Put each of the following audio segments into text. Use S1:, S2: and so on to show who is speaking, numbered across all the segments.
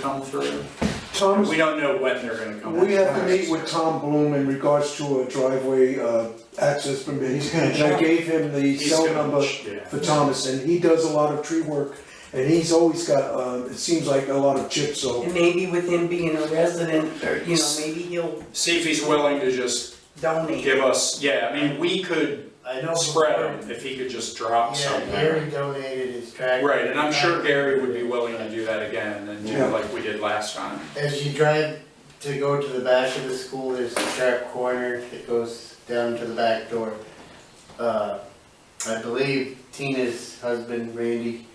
S1: come through.
S2: Tom's,
S1: We don't know when they're gonna come.
S2: we have to meet with Tom Bloom in regards to a driveway, uh, access permit.
S3: He's gonna
S2: And I
S3: check.
S2: gave him the
S1: He's
S2: cell
S1: gonna-
S2: number
S1: yeah.
S2: for Thomas, and he does a lot of tree work, and he's always got, uh, it seems like a lot of chips, so.
S3: And maybe with him being a resident, or, you know, maybe he'll
S1: See if he's willing to just
S3: donate.
S1: give us, yeah, I mean, we could
S4: I know.
S1: spread them if he could just drop
S4: Yeah,
S1: somewhere.
S4: Gary donated his tractor.
S1: Right, and I'm sure Gary would be willing to do that again and do
S2: Yeah.
S1: like we did last time.
S4: As you drive to go to the back of the school, there's a sharp corner that goes down to the back door. Uh, I believe Tina's husband Randy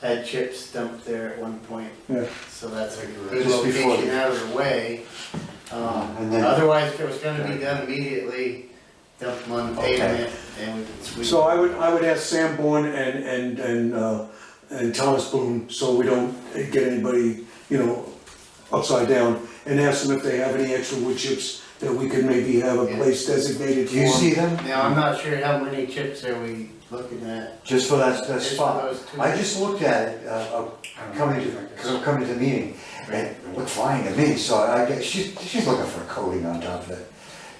S4: had chips dumped there at one point.
S2: Yeah.
S4: So that's a good
S3: Just before
S4: location
S3: the- Uh,
S4: out of the way. Um,
S3: And then-
S4: Otherwise, if it was gonna be done immediately, dump them on the
S3: Okay.
S4: pavement and we could sweep.
S2: So I would, I would ask Sam Bourne and, and, and, uh, and Thomas Bloom, so we don't get anybody, you know, upside down, and ask them if they have any extra wood chips that we could maybe have a place designated for.
S3: Do you see them?
S4: Now, I'm not sure how many chips are we looking at.
S3: Just for that, that
S4: Just for
S3: spot.
S4: those two.
S3: I just looked at it,
S1: I
S3: uh, uh,
S1: don't know.
S3: coming to, cause I'm coming to the meeting, and it looked fine to me, so I guess, she's, she's looking for a coating on top of it.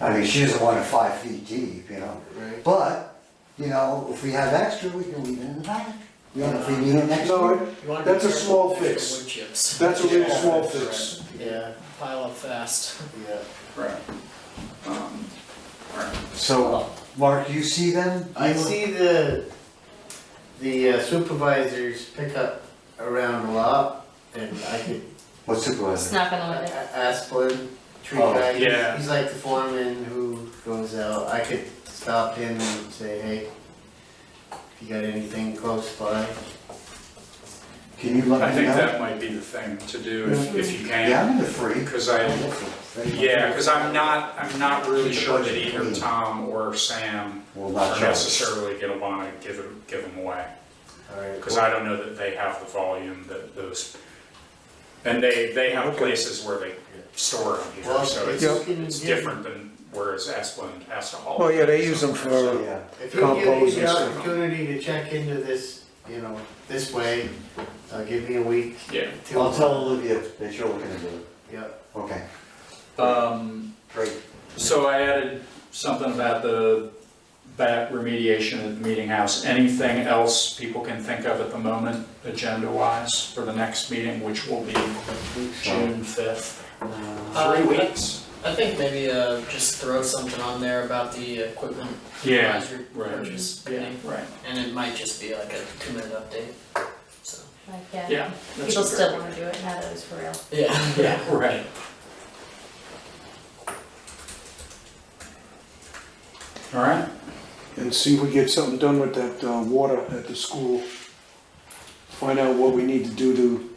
S3: I mean, she doesn't want it five feet deep, you know,
S4: Right.
S3: but, you know, if we have extra, we can leave it in the back. You know, if we need it next
S2: No,
S3: door.
S2: it- That's a small fix.
S5: Wood chips
S2: that's a real
S1: Yeah,
S2: small
S1: that's
S2: fix.
S4: Yeah,
S5: pile up fast.
S4: yeah.
S1: Right. Um, right.
S3: So, Mark, you see them?
S4: I
S3: You-
S4: see the, the uh, supervisors pick up around a lot, and I could,
S3: What supervisor?
S6: Snapping
S5: Oh,
S4: A-
S6: on it.
S4: A- Asplin, tree
S3: Oh,
S4: guy,
S1: yeah.
S4: he's- he's like the foreman who goes out, I could stop him and say, hey, if you got anything close by,
S3: Can you let me know?
S1: I think that might be the thing to do if, if you
S3: Yeah,
S1: can,
S3: I'm in the free.
S1: because I, Yeah, because I'm not, I'm not really sure that either Tom or Sam
S3: Well,
S1: are
S3: not necessarily.
S1: necessarily gonna wanna give them, give them away.
S4: alright.
S1: Because I don't know that they have the volume that those, and they, they have places where they store them here,
S4: Well,
S1: so
S4: if
S1: it's,
S4: you can
S1: it's
S4: give-
S1: different than whereas Esplin has to haul.
S2: Well, yeah, they use them
S1: something,
S2: for-
S3: Yeah,
S4: If you give me
S2: Compose
S4: the
S2: and
S1: stuff.
S4: opportunity to check into this, you know, this way, uh, give me a week,
S1: so, Yeah,
S4: two.
S3: I'll tell Olivia that you're looking to do it.
S4: Yeah,
S3: Okay,
S7: Um,
S3: great.
S7: so I added something about the bat remediation at the meeting house. Anything else people can think of at the moment, agenda-wise, for the next meeting, which will be June fifth?
S3: Uh,
S1: three weeks,
S5: I think maybe uh, just throw something on there about the equipment
S1: yeah,
S5: advisory
S7: right.
S5: purchase
S7: Yeah,
S5: thing,
S7: right,
S5: and it might just be like a two minute update. So
S6: Like, yeah,
S7: yeah. that's
S6: people
S7: a very-
S6: still wanna do it, now that it's for real.
S5: yeah,
S7: Yeah, right. All right,
S2: And see if we get something done with that, uh, water at the school. Find out what we need to do to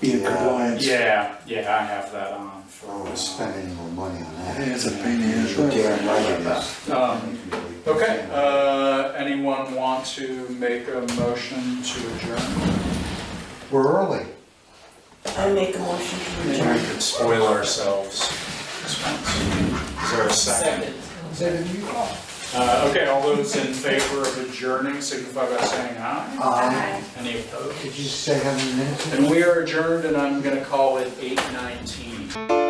S2: be in
S3: Yeah.
S2: compliance.
S7: yeah, yeah, I have that on for.
S3: Oh, we're spending more money on that.
S2: It's a pain in the
S3: You're
S2: ass.
S3: damn right it is.
S7: Um, Okay, uh, anyone want to make a motion to adjourn?
S3: We're early. I make a motion
S1: we could spoil ourselves. this once. Is there a second?
S5: Second.
S7: Uh, okay, all those in favor of adjourning signify by saying aye.
S3: Um,
S7: Any opposed?
S3: could you say how many minutes? it is?
S7: And we are adjourned and I'm gonna call it eight nineteen.